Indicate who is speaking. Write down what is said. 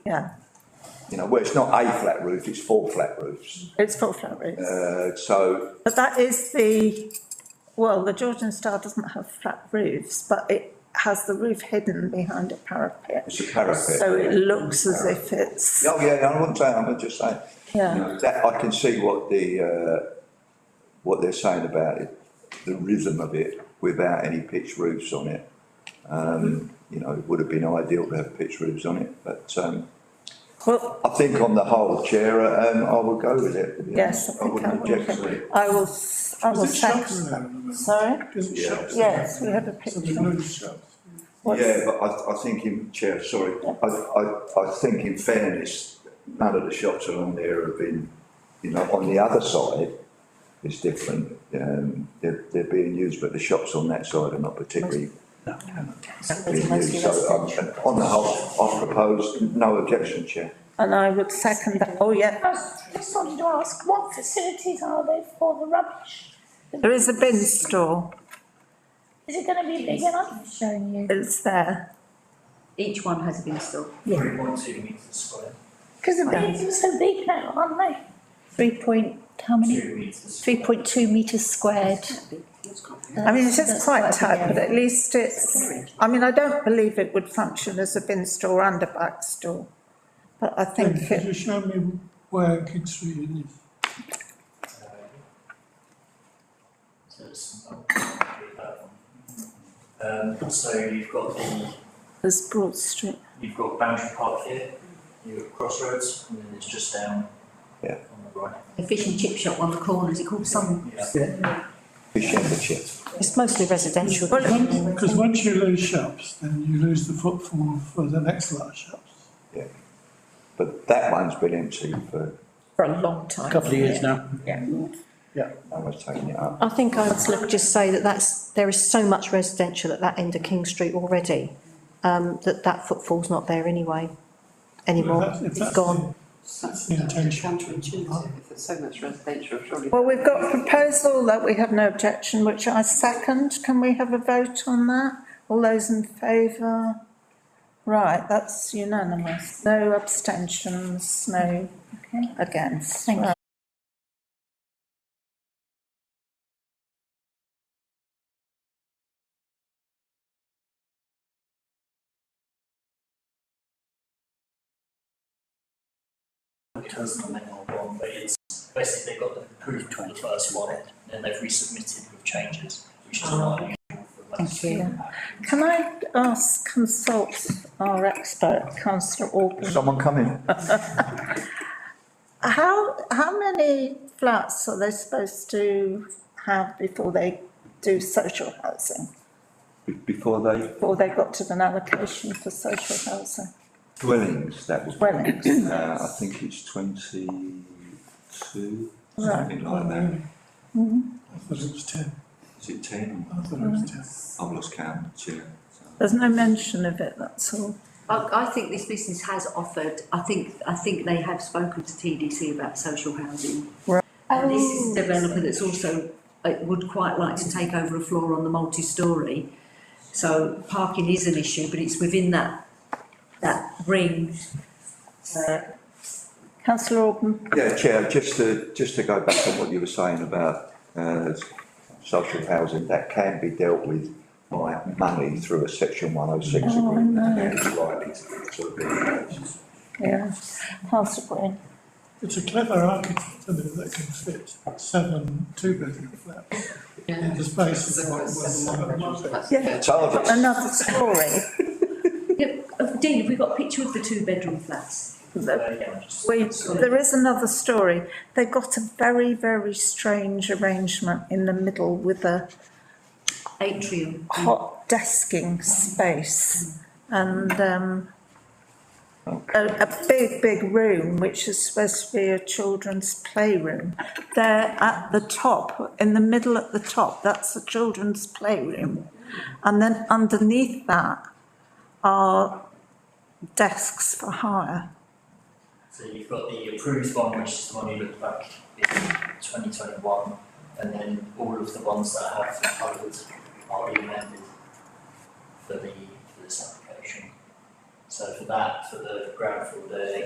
Speaker 1: yeah,
Speaker 2: You know, well, it's not a flat roof, it's four flat roofs.
Speaker 1: it's full flat roofs.
Speaker 2: Uh, so,
Speaker 1: But that is the, well, the Georgian Star doesn't have flat roofs, but it has the roof hidden behind a parapet.
Speaker 2: It's a parapet,
Speaker 1: So it
Speaker 2: yeah.
Speaker 1: looks as if it's,
Speaker 2: oh yeah, I wouldn't say, I'm just saying.
Speaker 1: Yeah.
Speaker 2: You know, That, I can see what the, uh, what they're saying about it, the rhythm of it, without any pitch roofs on it. Um, you know, it would have been ideal to have pitch roofs on it, but, um,
Speaker 1: well,
Speaker 2: I think on the whole, Chair, um, I would go with it.
Speaker 1: yes, I think I
Speaker 2: wouldn't object to it.
Speaker 1: would. I will, s- I will
Speaker 3: Is it shops
Speaker 1: second
Speaker 3: now,
Speaker 1: that.
Speaker 3: remember?
Speaker 1: Sorry?
Speaker 3: Is it
Speaker 2: Yeah.
Speaker 3: shops?
Speaker 1: Yes, we had a
Speaker 3: So
Speaker 1: picture.
Speaker 3: there's no shops.
Speaker 1: What's-
Speaker 2: Yeah, but I, I think in, Chair, sorry, I, I, I think in fairness, none of the shops along there have been, you know, on the other side is different. Um, they're, they're being used, but the shops on that side are not particularly being used. So, um, on the whole, I propose no objection, Chair.
Speaker 1: And I would second that, oh yeah,
Speaker 4: I just wanted to ask, what facilities are there for the rubbish?
Speaker 1: there is a bin store,
Speaker 4: Is it gonna be big enough? Showing you.
Speaker 1: it's there.
Speaker 5: Each one has a bin store.
Speaker 6: Three point two metres square,
Speaker 4: Because the beans are so big now, aren't they?
Speaker 7: Three point, how many?
Speaker 6: two metres.
Speaker 7: Three point two metres squared.
Speaker 1: I mean, it's just
Speaker 7: That's
Speaker 1: quite
Speaker 7: quite
Speaker 1: tight,
Speaker 7: big,
Speaker 1: but at least it's, I mean, I don't believe it would function as a bin store and a back store. But I think
Speaker 3: Could you
Speaker 1: it,
Speaker 3: show me where King Street is?
Speaker 6: Uh, So it's, oh, that one. Um, so you've got the,
Speaker 1: there's Broad Street,
Speaker 6: you've got Boundary Park here, you've got Crossroads, and then it's just down.
Speaker 2: Yeah.
Speaker 6: On the right.
Speaker 5: The fish and chip shop on the corner, is it called some?
Speaker 6: Yeah.
Speaker 2: Fish and the Chair.
Speaker 7: It's mostly residential.
Speaker 3: Because once you lose shops, then you lose the footfall for the next lot of shops.
Speaker 2: But that one's been empty for,
Speaker 1: for a long time.
Speaker 8: Couple of years now.
Speaker 2: no one's taken it up.
Speaker 7: I think I would just say that that's, there is so much residential at that end of King Street already, um, that that footfall's not there anyway, anymore.
Speaker 3: If that's- if
Speaker 7: It's
Speaker 3: that's
Speaker 7: gone.
Speaker 3: That's the intention.
Speaker 9: Counterintuitive, if there's so much residential, surely.
Speaker 1: Well, we've got a proposal that we have no objection, which I second. Can we have a vote on that? All those in favour? Right, that's unanimous. No abstentions, no against.
Speaker 7: Thank you.
Speaker 1: Right.
Speaker 6: It has the name on one, but it's basically they got them approved on the first one, and they've resubmitted with changes, which is not unusual for that.
Speaker 1: Oh. Thank you. Can I ask consult our expert, councillor Orban?
Speaker 2: Has someone come in?
Speaker 1: How, how many flats are they supposed to have before they do social housing?
Speaker 2: Be- Before they,
Speaker 1: Before they got to an allocation for social housing
Speaker 2: dwellings, that was.
Speaker 1: dwellings?
Speaker 2: Uh, I think it's twenty-two, something like that.
Speaker 1: Mm-hmm.
Speaker 3: I thought it was ten.
Speaker 2: Is it ten?
Speaker 3: I thought it was ten.
Speaker 2: I've lost count, Chair.
Speaker 1: There's no mention of it, that's all.
Speaker 5: I, I think this business has offered, I think, I think they have spoken to TDC about social housing.
Speaker 1: Right.
Speaker 5: And this is
Speaker 4: Oh.
Speaker 5: a developer that's also, uh, would quite like to take over a floor on the multi-story. So parking is an issue, but it's within that, that ring. Uh,
Speaker 1: Councillor Orban,
Speaker 2: Yeah, Chair, just to, just to go back on what you were saying about, uh, social housing, that can be dealt with by money through a section one oh six agreement. and it's likely to- to be the case.
Speaker 1: yeah, councillor Green.
Speaker 3: It's a clever architect isn't it, that can fit seven two-bedroom flats in the space of what was seven one.
Speaker 1: Yeah,
Speaker 2: It's hard, it's-
Speaker 1: another story.
Speaker 5: yeah, uh, Dean, have we got a picture of the two-bedroom flats?
Speaker 6: Uh, yeah, just-
Speaker 1: We, there is another story. They got a very, very strange arrangement in the middle with a
Speaker 5: Atrium.
Speaker 1: hot desking space and um, a, a big, big room, which is supposed to be a children's playroom. There at the top, in the middle at the top, that's the children's playroom. And then underneath that are desks for hire.
Speaker 6: So you've got the approved one, which is the one you looked back in twenty twenty-one, and then all of the ones that have been covered are being amended for the, for this application. So for that, for the ground floor, they